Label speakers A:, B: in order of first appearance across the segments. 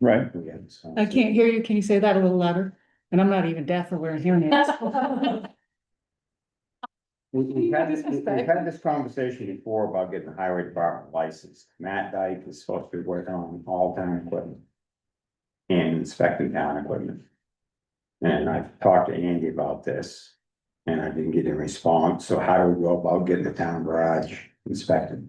A: Right.
B: I can't hear you. Can you say that a little louder? And I'm not even deaf or wearing hearing aids.
A: We, we had this, we- we
B: Disrespect.
A: had this conversation before about getting the highway department license. Matt Dyke is supposed to be working on all town equipment. And inspecting town equipment. And I've talked to Andy about this. And I didn't get a response, so how do we go about getting the town garage inspected?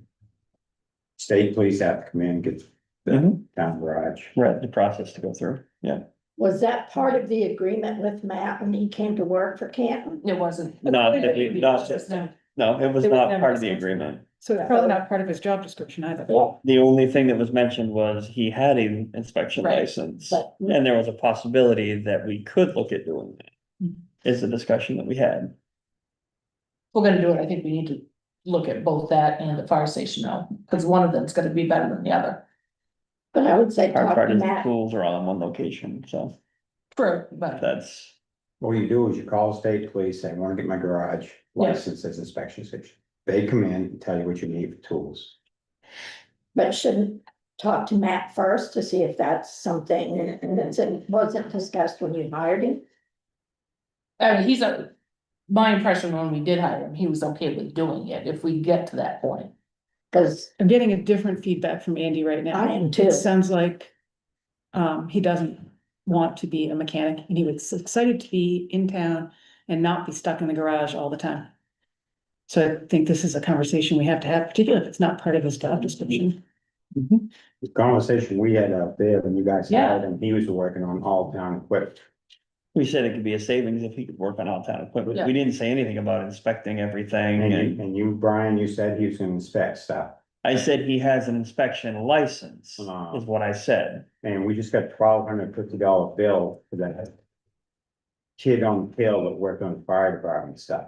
A: State police have to come in and get the town garage.
C: Mm-hmm. Right, the process to go through, yeah.
D: Was that part of the agreement with Matt when he came to work for Canton?
E: It wasn't.
C: Not, not,
E: No.
C: no, it was
B: There was
C: not
B: never
C: part of the
B: discussed.
C: agreement.
B: So it's probably not part of his job description either.
C: The only thing that was mentioned was he had an inspection
E: Right,
C: license,
D: but-
C: and there was a possibility that we could look at doing that.
B: Mhm.
C: Is the discussion that we had.
E: We're gonna do it. I think we need to look at both that and the fire station now, because one of them's gonna be better than the other.
D: But I would say
C: Our
D: talk
C: part
D: to
C: is the
D: Matt.
C: tools are all in one location, so
E: True, but
C: that's,
A: What you do is you call the state police, say, I wanna get my garage licensed as inspection station. They come in and tell you what you need for tools.
D: But shouldn't talk to Matt first to see if that's something that wasn't discussed when you hired him?
E: I mean, he's a, my impression when we did hire him, he was okay with doing it if we get to that point.
D: Cause
B: I'm getting a different feedback from Andy right now.
D: I am too.
B: It sounds like um, he doesn't want to be a mechanic and he was excited to be in town and not be stuck in the garage all the time. So I think this is a conversation we have to have, particularly if it's not part of his job description.
A: The conversation we had up there when you guys
E: Yeah.
A: had him, he was working on all town equipment.
C: we said it could be a savings if he could work on all town equipment.
E: Yeah.
C: We didn't say anything about inspecting everything
A: And
C: and
A: you, and you, Brian, you said he was gonna inspect stuff,
C: I said he has an inspection license,
A: Ah.
C: is what I said.
A: and we just got twelve hundred fifty dollar bill for that. Kid on the hill that worked on the fire department stuff,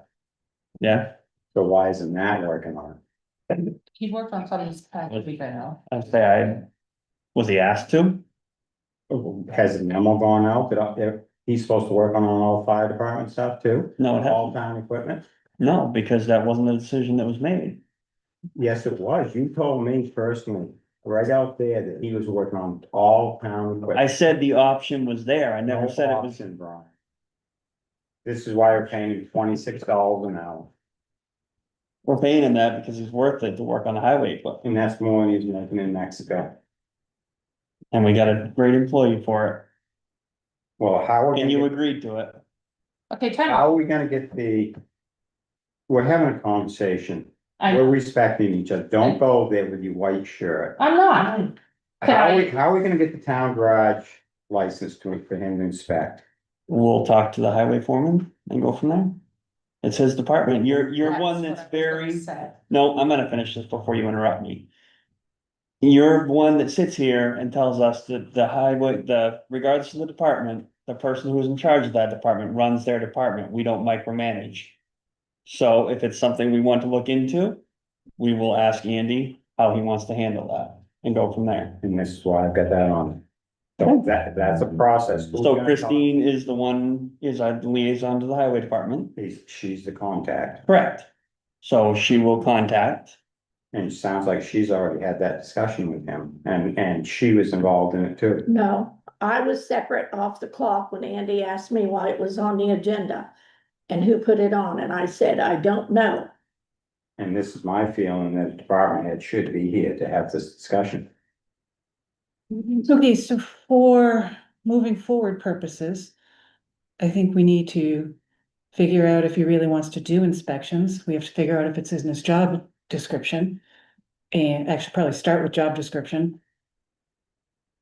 C: Yeah,
A: so why isn't that working on? it?
E: He worked on some of these packages we got now.
C: I say I, was he asked to?
A: Has the memo gone out that up there, he's supposed to work on all fire department stuff too?
C: No, it
A: All
C: hasn't.
A: town equipment?
C: No, because that wasn't a decision that was made.
A: Yes, it was, you told me personally, right out there, that he was working on all town equipment.
C: I said the option was there. I
A: No
C: never said it was,
A: option, Brian. This is why we're paying twenty-six dollars an hour,
C: we're paying him that because he's worth it to work on the highway, but,
A: and that's more than he's making in Mexico.
C: and we got a great employee for
A: Well, how are
C: it,
A: we
C: and you
A: gonna, get-
C: agreed to it.
E: Okay, time out.
A: how are we gonna get the? We're having a conversation,
E: I,
A: we're respecting each other, don't go there with your white shirt.
E: I'm not. Can
A: How are we,
E: I-
A: how are we gonna get the town garage license to, for him to inspect?
C: We'll talk to the highway foreman and go from there. It's his department. You're, you're one
E: what
C: that's
E: I was gonna
C: very.
E: say.
C: No, I'm gonna finish this before you interrupt me. You're one that sits here and tells us that the highway, the regardless of the department, the person who's in charge of that department runs their department. We don't micromanage. So if it's something we want to look into, we will ask Andy how he wants to handle that and go from there.
A: And this is why I've got that on. So That, that's a process. Who's
C: So
A: gonna
C: Christine is the one, is our liaison to the highway department,
A: talk? She's, she's the contact,
C: correct? So she will contact
A: and it sounds like she's already had that discussion with him, and, and she was involved in it too.
D: No, I was separate off the clock when Andy asked me why it was on the agenda. And who put it on? And I said, I don't know.
A: And this is my feeling that the department head should be here to have this discussion.
C: Mm-hmm.
B: Okay, so for moving forward purposes, I think we need to figure out if he really wants to do inspections. We have to figure out if it's in his job description. And actually probably start with job description.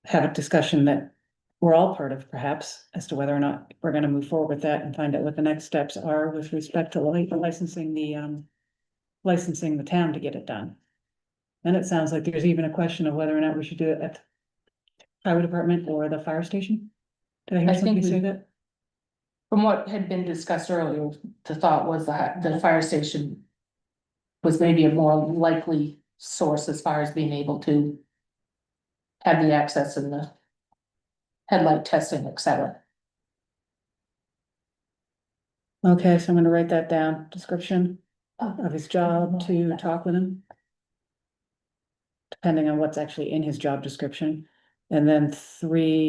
B: Have a discussion that we're all part of perhaps as to whether or not we're gonna move forward with that and find out what the next steps are with respect to li- licensing the um. Licensing the town to get it done. Then it sounds like there's even a question of whether or not we should do it at the highway department or the fire station? Did I
E: I
B: hear
E: think
B: somebody
E: we-
B: say that?
E: From what had been discussed earlier, the thought was that the fire station. Was maybe a more likely source as far as being able to. Have the access and the. Headlight testing, et cetera.
B: Okay, so I'm gonna write that down, description
E: Oh.
B: of his job to talk with him. Depending on what's actually in his job description, And then three